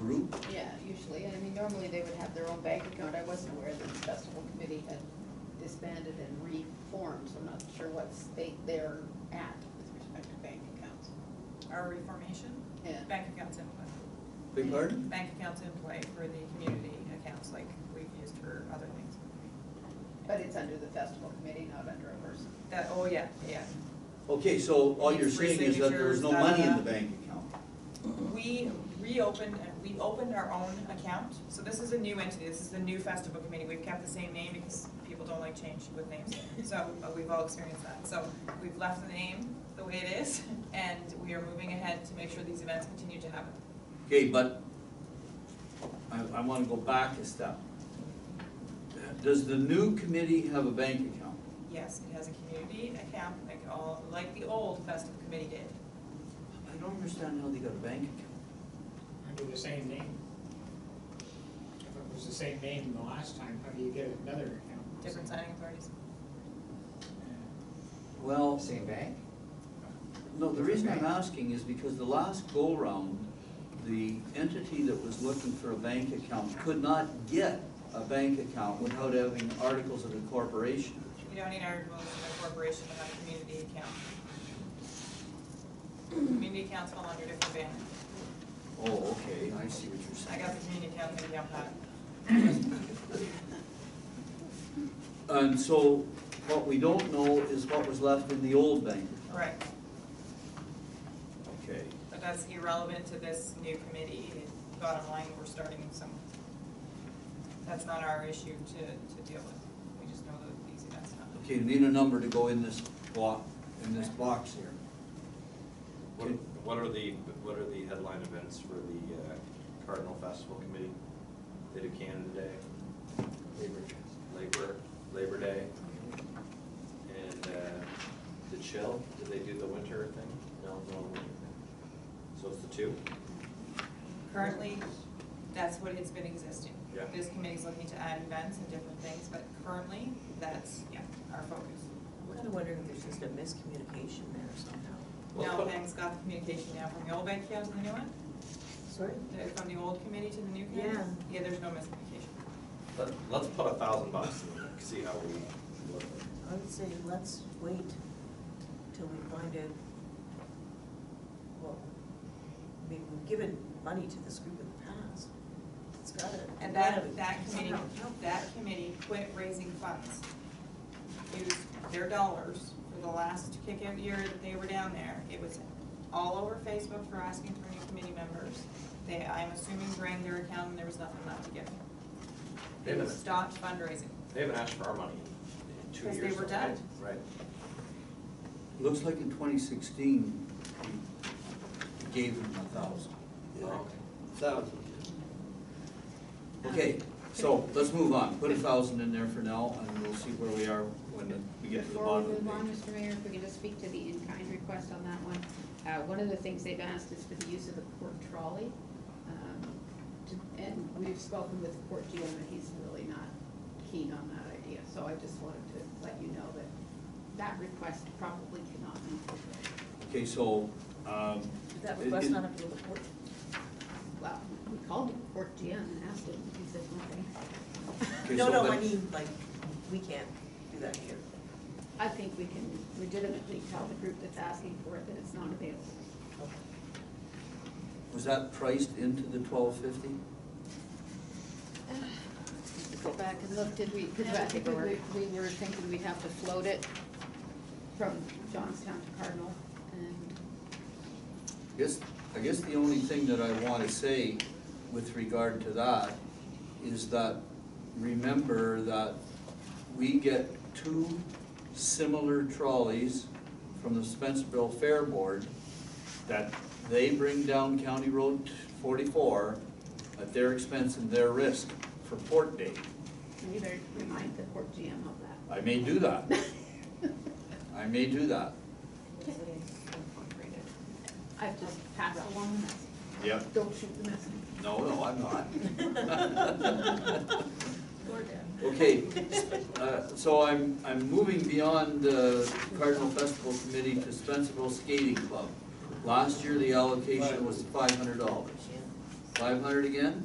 group? Yeah, usually, I mean, normally they would have their own bank account, I wasn't aware that the festival committee had disbanded and reformed, so I'm not sure what state they're at with respect to bank accounts. Our reformation, Yeah. bank accounts in play, Big pardon? bank accounts in play for the community accounts like we've used for other things. But it's under the festival committee, not under a person. That, oh, yeah, yeah. Okay, so all you're Needs three saying is that there was no signatures, money in the da-da-da. bank account? We reopened, we opened our own account, so this is a new entity, this is the new festival committee, we've kept the same name because people don't like change with names, so, but we've all experienced that, so we've left the name the way it is, and we are moving ahead to make sure these events continue to happen. Okay, but I, I wanna go back a step. Does the new committee have a bank account? Yes, it has a community account, like all, like the old festival committee did, I don't understand how they got a bank account. Under the same name. If it was the same name the last time, how do you get another account? different signing authorities. Well, Same bank? no, the reason I'm asking is because the last go-round, the entity that was looking for a bank account could not get a bank account without having articles of incorporation. You don't need our, well, it's a corporation to have a community account. Community accounts fall under different banner. Oh, okay, I see what you're I saying. got the community account, maybe I'm not. And so what we don't know is what was left in the old bank. Right, Okay. but that's irrelevant to this new committee. Bottom line, we're starting some, that's not our issue to, to deal with. We just know that these events happen. Okay, we need a number to go in this block, in this box here. What, what are the, what are the headline events for the uh, Cardinal Festival Committee? They do Canada Day. Labor. Labor, Labor Day. And uh, the chill, do they do the winter thing? No, no winter thing. So it's the two? Currently, that's what it's been existing. Yeah. This committee's looking to add events and different things, but currently, that's, yeah, our focus. I'm kind of wondering if there's just a miscommunication there somehow. Well, Now, but- Pam's got the communication now from the old bank account to the new one, Sorry? the- from the old committee to the new committee. Yeah. Yeah, there's no miscommunication. Let, let's put a thousand bucks in there, see how we look. I would say let's wait till we find out, well, I mean, we've given money to this group in the past. It's gotta. And gotta that, that committee, somehow help. that committee quit raising funds. Used their dollars for the last kick-out year that they were down there. It was all over Facebook for asking for new committee members. They, I'm assuming drained their account and there was nothing left to give. Wait a They minute. stopped fundraising. They haven't asked for our money in- in two Because years. they were now, right? dead. Right. Looks like in twenty sixteen, we gave them a thousand. Okay. Thousand. Okay, so let's move on. Put a thousand in there for now and we'll see where we are when we get to the Before bottom we of the move on, page. Mr. Mayor, if we can just speak to the in-kind request on that one. Uh, one of the things they've asked is for the use of the port trolley. um, to- And we've spoken with Port GM and he's really not keen on that idea. So I just wanted to let you know that that request probably cannot be fulfilled. Okay, so, um. Did that it- request it- not appeal to court? Well, we called Port GM and asked him, he said nothing. okay, No, so no, I that- mean, like, we can't do that here. I think we can legitimately tell the group that's asking for it that it's not available. Was that priced into the twelve fifty? Go back and look, did we, because I think we, we were thinking we'd have to float it from Johnstown to Cardinal, and Guess, I guess the only thing that I wanna say with regard to that is that, remember that we get two similar trolleys from the Spencerville Fair Board that they bring down County Road forty-four at their expense and their risk for Port Day. we better remind the Port GM of that. I may do that, I may do that. I've just passed along the message, Yep. don't shoot the messenger. No, no, I'm not. Okay, uh, so I'm, I'm moving beyond uh, Cardinal Festival Committee to Spencerville Skating Club. Last year, the allocation was five hundred dollars. Five hundred again?